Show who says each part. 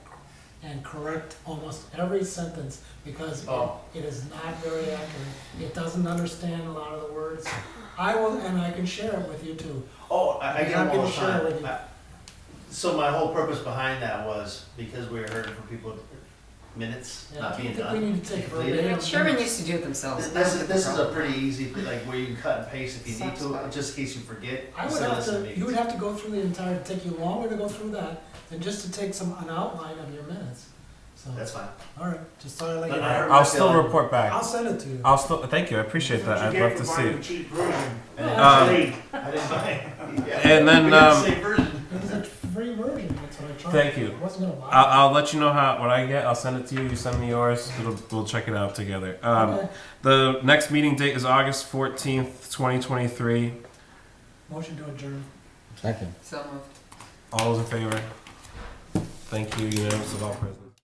Speaker 1: and correct almost every sentence because it-
Speaker 2: Oh.
Speaker 1: it is not very accurate. It doesn't understand a lot of the words. I will, and I can share it with you too.
Speaker 2: Oh, I, I
Speaker 1: You're
Speaker 2: get
Speaker 1: not
Speaker 2: them all
Speaker 1: gonna
Speaker 2: the
Speaker 1: share
Speaker 2: time.
Speaker 1: with you.
Speaker 2: I- So my whole purpose behind that was because we were hurting for people, minutes
Speaker 1: Yeah,
Speaker 2: not
Speaker 1: I
Speaker 2: being
Speaker 1: think we
Speaker 2: done.
Speaker 1: need to take
Speaker 2: completed.
Speaker 1: verbatim.
Speaker 3: Sherman
Speaker 1: minutes.
Speaker 3: used to do it themselves.
Speaker 2: This, this is, this is a
Speaker 3: Problem.
Speaker 2: pretty easy, thing, like where you can cut and paste if you need
Speaker 3: Sounds
Speaker 2: to,
Speaker 3: fun.
Speaker 2: just in case you forget.
Speaker 1: I would
Speaker 2: instead
Speaker 1: have
Speaker 2: of listening
Speaker 1: to, you would
Speaker 2: meetings.
Speaker 1: have to go through the entire, it'd take you longer to go through that than just to take some, an outline of your minutes. So,
Speaker 2: That's fine.
Speaker 1: all right, just thought I'd let you
Speaker 2: But I
Speaker 1: know.
Speaker 2: heard-
Speaker 4: I'll still report
Speaker 1: I'll
Speaker 4: back.
Speaker 1: send it to you.
Speaker 4: I'll still thank you. I appreciate that. I'd love to see it.
Speaker 5: Cheap version.
Speaker 2: I didn't
Speaker 4: Um,
Speaker 2: buy
Speaker 5: Hey,
Speaker 2: it. I didn't buy it. Yeah.
Speaker 4: And then,
Speaker 2: We got the
Speaker 4: um,
Speaker 2: same version.
Speaker 1: It's a free version, that's what I tried.
Speaker 4: Thank you.
Speaker 1: I
Speaker 4: Uh,
Speaker 1: wasn't gonna lie.
Speaker 4: I'll, I'll let you know how what I get. I'll send it to you. You send me yours. It'll, we'll check it out together. Um,
Speaker 1: Okay,
Speaker 4: the next meeting date is August fourteenth, twenty twenty three.
Speaker 1: motion to adjourn.
Speaker 6: Second.
Speaker 3: So moved.
Speaker 4: All those in favor? Thank you. Unanimous of all present.